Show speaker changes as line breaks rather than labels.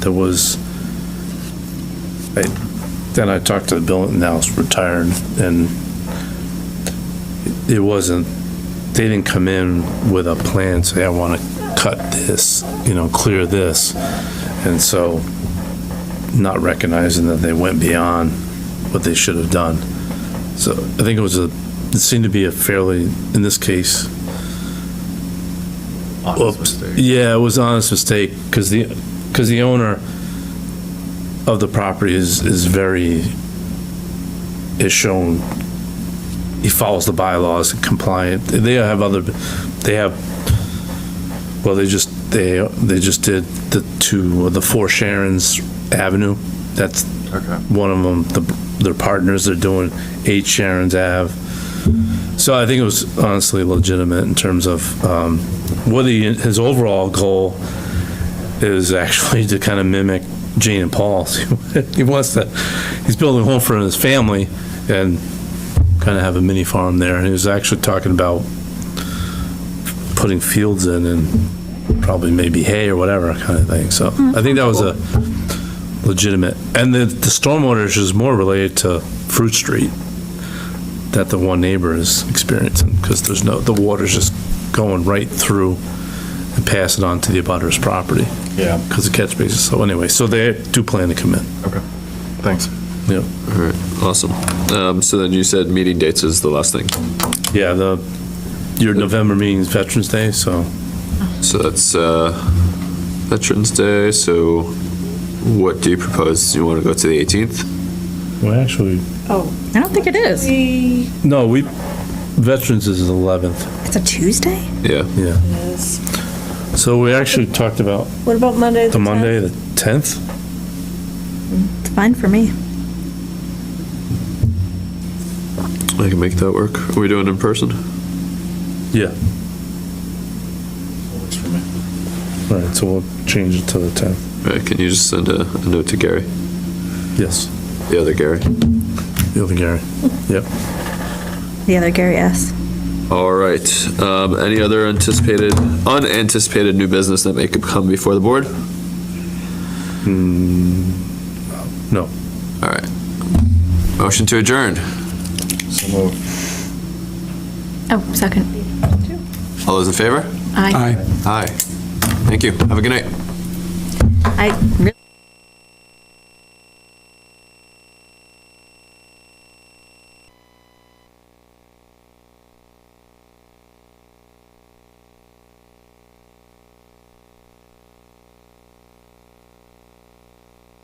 there was, I- then I talked to Bill, now it's retired, and it wasn't, they didn't come in with a plan, say, I want to cut this, you know, clear this. And so, not recognizing that they went beyond what they should have done. So I think it was a, it seemed to be a fairly, in this case,
Honest
Oops.
mistake.
Yeah, it was an honest mistake, because the, because the owner of the property is, is very, is shown, he follows the bylaws, compliant, they have other, they have, well, they just, they, they just did the two, the four Sharon's Avenue, that's
Okay.
one of them, the, their partners, they're doing eight Sharon's Ave. So I think it was honestly legitimate in terms of, um, what he, his overall goal is actually to kind of mimic Jane and Paul's. He wants to, he's building a home for his family and kind of have a mini farm there. And he was actually talking about putting fields in and probably maybe hay or whatever kind of thing. So I think that was a legitimate. And the, the stormwater issue is more related to Fruit Street that the one neighbor is experiencing, because there's no, the water's just going right through and passing on to the abutter's property,
Yeah.
because the catch basin, so anyway, so they do plan to come in.
Thanks.
Yeah,
All right, awesome. Um, so then you said meeting dates is the last thing.
yeah, the, your November meeting is Veterans Day, so
So that's, uh, Veterans Day, so what do you propose? Do you want to go to the 18th?
well, actually,
Oh,
I don't think it is.
we,
no, we, Veterans is the 11th,
It's a Tuesday?
Yeah,
yeah.
yes.
So we actually talked about
What about Monday?
the
10th?
Monday, the 10th?
It's fine for me.
I can make that work. Are we doing it in person?
Yeah,
Works for me.
all right, so we'll change it to the 10th,
All right, can you just send a, a note to Gary,
yes,
the other Gary?
the other Gary, yep.
The other Gary S.
All right, um, any other anticipated, unanticipated new business that may come before the board?
No.
All right. Motion to adjourn.
So moved.
Oh, second.
All those in favor?
I,
Aye. Thank you. Have a good night.
I really.